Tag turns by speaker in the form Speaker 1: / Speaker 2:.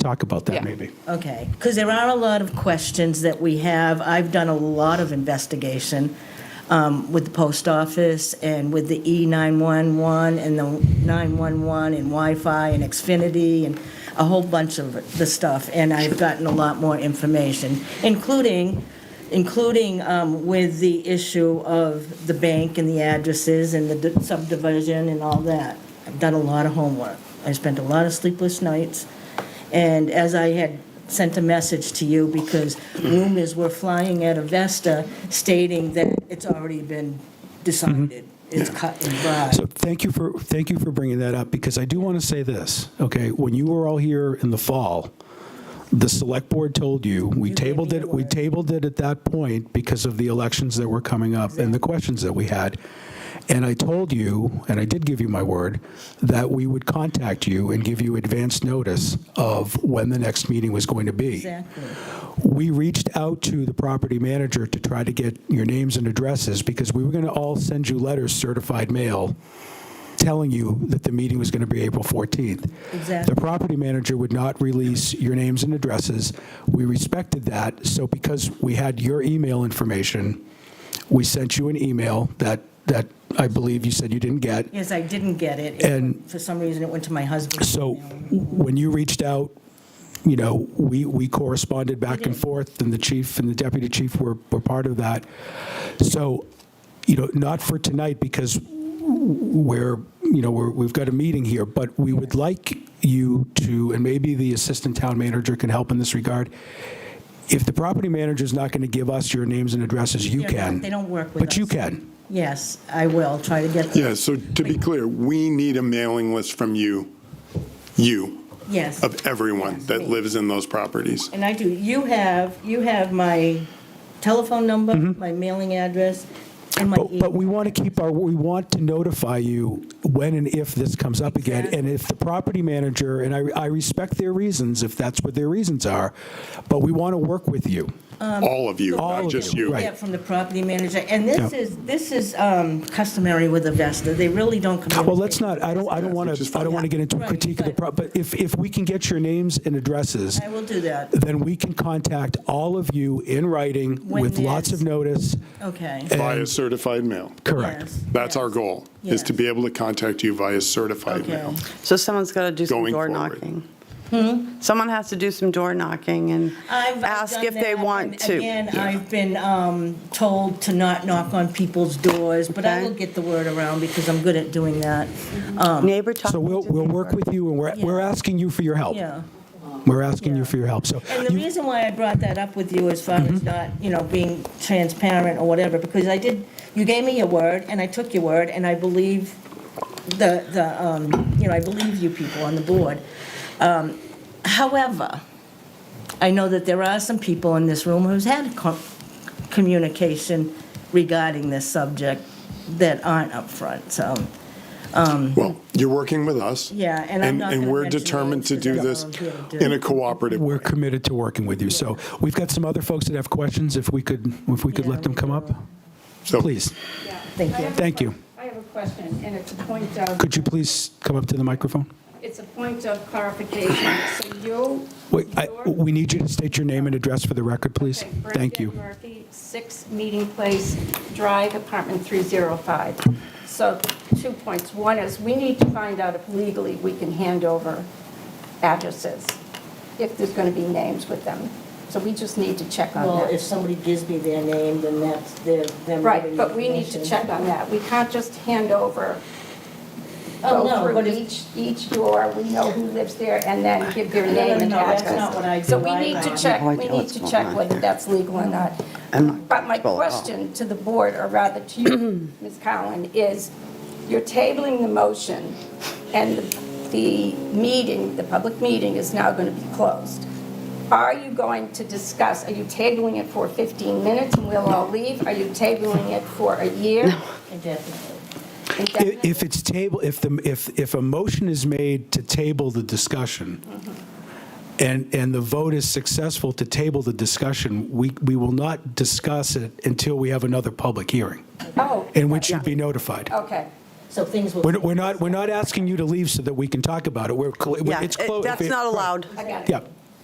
Speaker 1: talk about that
Speaker 2: Yeah.
Speaker 1: maybe.
Speaker 3: Okay, because there are a lot of questions that we have. I've done a lot of investigation um, with the post office and with the E E911 and the 911 and Wi-Fi and Xfinity and a whole bunch of the stuff. And I've gotten a lot more information, including, including um, with the issue of the bank and the addresses and the d- subdivision and all that. I've done a lot of homework. I spent a lot of sleepless nights. And as I had sent a message to you, because rumors were flying out of Vesta stating that it's already been decided, it's cut and dried.
Speaker 1: Mm-hmm. So thank you for, thank you for bringing that up, because I do want to say this, okay? When you were all here in the fall, the select board told you, we
Speaker 3: You gave
Speaker 1: tabled
Speaker 3: me
Speaker 1: it,
Speaker 3: your
Speaker 1: we
Speaker 3: word.
Speaker 1: tabled it at that point because of the elections that were coming up and the questions that we had. And I told you, and I did give you my word, that we would contact you and give you advance notice of when the next meeting was going to be.
Speaker 3: Exactly.
Speaker 1: We reached out to the property manager to try to get your names and addresses because we were going to all send you letters certified mail telling you that the meeting was going to be April 14th.
Speaker 3: Exactly.
Speaker 1: The property manager would not release your names and addresses. We respected that, so because we had your email information, we sent you an email that, that I believe you said you didn't get.
Speaker 3: Yes, I didn't get it. It
Speaker 1: And-
Speaker 3: went- For some reason, it went to my husband.
Speaker 1: So when you reached out, you know, we, we corresponded back
Speaker 3: Mm-hmm.
Speaker 1: and forth, and the chief and the deputy chief were, were part of that. So, you know, not for tonight, because we're, you know, we're, we've got a meeting here, but we would like you to, and maybe the assistant town manager can help in this regard. If the property manager's not going to give us your names and addresses, you
Speaker 3: They're not-
Speaker 1: can.
Speaker 3: They don't work with us.
Speaker 1: But you can.
Speaker 3: Yes, I will, try to get.
Speaker 4: Yeah, so to be clear, we need a mailing list from you, you,
Speaker 3: Yes.
Speaker 4: of everyone that lives in those properties.
Speaker 3: And I do, you have, you have my telephone number, my mailing address, and my
Speaker 1: Mm-hmm. But,
Speaker 3: email.
Speaker 1: but we want to keep our, we want to notify you when and if this comes up again. And if the property manager, and I, I respect their reasons, if that's what their reasons are, but we want to work with you.
Speaker 3: Um,
Speaker 4: All of you,
Speaker 1: All
Speaker 4: not
Speaker 1: of
Speaker 4: just
Speaker 1: you,
Speaker 4: you.
Speaker 1: right.
Speaker 3: Yeah, from the property manager, and this
Speaker 1: Yeah.
Speaker 3: is, this is um, customary with Avesta, they really don't communicate.
Speaker 1: Well, let's not, I don't, I don't want
Speaker 4: Which
Speaker 1: to,
Speaker 4: is
Speaker 1: I
Speaker 4: fine.
Speaker 1: don't want to get into a
Speaker 3: Right,
Speaker 1: critique of the, pro- but if, if we can get your names and addresses,
Speaker 3: I will do that,
Speaker 1: then we can contact all of you in writing
Speaker 3: When
Speaker 1: with lots of
Speaker 3: there's-
Speaker 1: notice.
Speaker 3: okay.
Speaker 4: Via certified mail.
Speaker 1: Correct.
Speaker 3: Yes,
Speaker 4: That's
Speaker 3: yes.
Speaker 4: our goal, is to
Speaker 3: Yes.
Speaker 4: be able to contact you via certified
Speaker 3: Okay,
Speaker 4: mail.
Speaker 5: So someone's got to do some
Speaker 4: Going
Speaker 5: door
Speaker 4: forward.
Speaker 5: knocking. Hmm? Someone has to do some door knocking and
Speaker 3: I've- I've
Speaker 5: ask
Speaker 3: done
Speaker 5: if they
Speaker 3: that,
Speaker 5: want
Speaker 3: and
Speaker 5: to.
Speaker 3: Again,
Speaker 4: Yeah.
Speaker 3: I've been um, told to not knock on people's doors, but I
Speaker 5: Okay.
Speaker 3: will get the word around because I'm good at doing that,
Speaker 5: Neighbor talking
Speaker 1: So we'll,
Speaker 5: to
Speaker 1: we'll work
Speaker 5: neighbor.
Speaker 1: with you and we're, we're asking you for your help.
Speaker 3: yeah.
Speaker 1: We're asking
Speaker 3: Yeah.
Speaker 1: you for your help, so.
Speaker 3: And the
Speaker 1: you-
Speaker 3: reason why I brought that up with you as far as not, you know, being transparent or whatever, because I did, you gave me your word, and I took your word, and I believe the, the, um, you know, I believe you people on the board. Um, However, I know that there are some people in this room who's had co- communication regarding this subject that aren't upfront, so,
Speaker 4: Well, you're working with us.
Speaker 3: Yeah, and I'm not
Speaker 4: And
Speaker 3: gonna
Speaker 4: we're
Speaker 3: mention
Speaker 4: determined
Speaker 3: names
Speaker 4: to
Speaker 3: 'cause
Speaker 4: do
Speaker 3: I
Speaker 4: this
Speaker 3: don't wanna do it.
Speaker 4: in a cooperative
Speaker 1: We're
Speaker 4: way.
Speaker 1: committed to working with you. So we've got some other folks that have questions, if we could, if we could
Speaker 3: Yeah.
Speaker 1: let them come up?
Speaker 4: So-
Speaker 1: Please,
Speaker 3: thank you.
Speaker 1: thank you.
Speaker 6: I have a question, and it's a point of.
Speaker 1: Could you please come up to the microphone?
Speaker 6: It's a point of clarification. So you.
Speaker 1: Wait, I-
Speaker 6: your-
Speaker 1: we need you to state your name and address for the record, please.
Speaker 6: Okay,
Speaker 1: Thank you.
Speaker 6: Bernadette Murphy, 6 Meeting Place Drive, apartment 305. So two points. One is, we need to find out if legally we can hand over addresses, if there's going to be names with them. So we just need to check on that.
Speaker 3: Well, if somebody gives me their name, then that's their, them.
Speaker 6: Right,
Speaker 3: giving
Speaker 6: but we need to
Speaker 3: information.
Speaker 6: check on that. We can't just hand over,
Speaker 3: Oh, no,
Speaker 6: go
Speaker 3: but
Speaker 6: through
Speaker 3: if-
Speaker 6: each, each door, we know who lives there, and then give their name
Speaker 3: no,
Speaker 6: and
Speaker 3: no, that's
Speaker 6: address.
Speaker 3: not what I do
Speaker 6: So we
Speaker 3: either.
Speaker 6: need to check,
Speaker 5: No, I
Speaker 6: we
Speaker 5: don't.
Speaker 6: need to check whether that's legal or not.
Speaker 5: I'm not
Speaker 6: But my
Speaker 5: comfortable at all.
Speaker 6: question to the board, or rather to you, Ms. Cowan, is you're tabling the motion, and the- the meeting, the public meeting is now going to be closed. Are you going to discuss, are you tabling it for 15 minutes and we'll all leave? Are you tabling it for a year?
Speaker 3: Indefinitely.
Speaker 1: I- If it's table, if the, if, if a motion is made to table the discussion, and, and the vote is successful to table the discussion, we, we will not discuss it until we have another public hearing,
Speaker 6: Oh,
Speaker 1: in which you'd be notified.
Speaker 6: okay.
Speaker 3: So things will.
Speaker 1: We're we're not, we're not asking you to leave so that we can talk about it. We're, cl-
Speaker 5: Yeah,
Speaker 1: it's
Speaker 5: it-
Speaker 1: closed.
Speaker 5: that's not allowed.
Speaker 6: I got it.
Speaker 1: Yeah.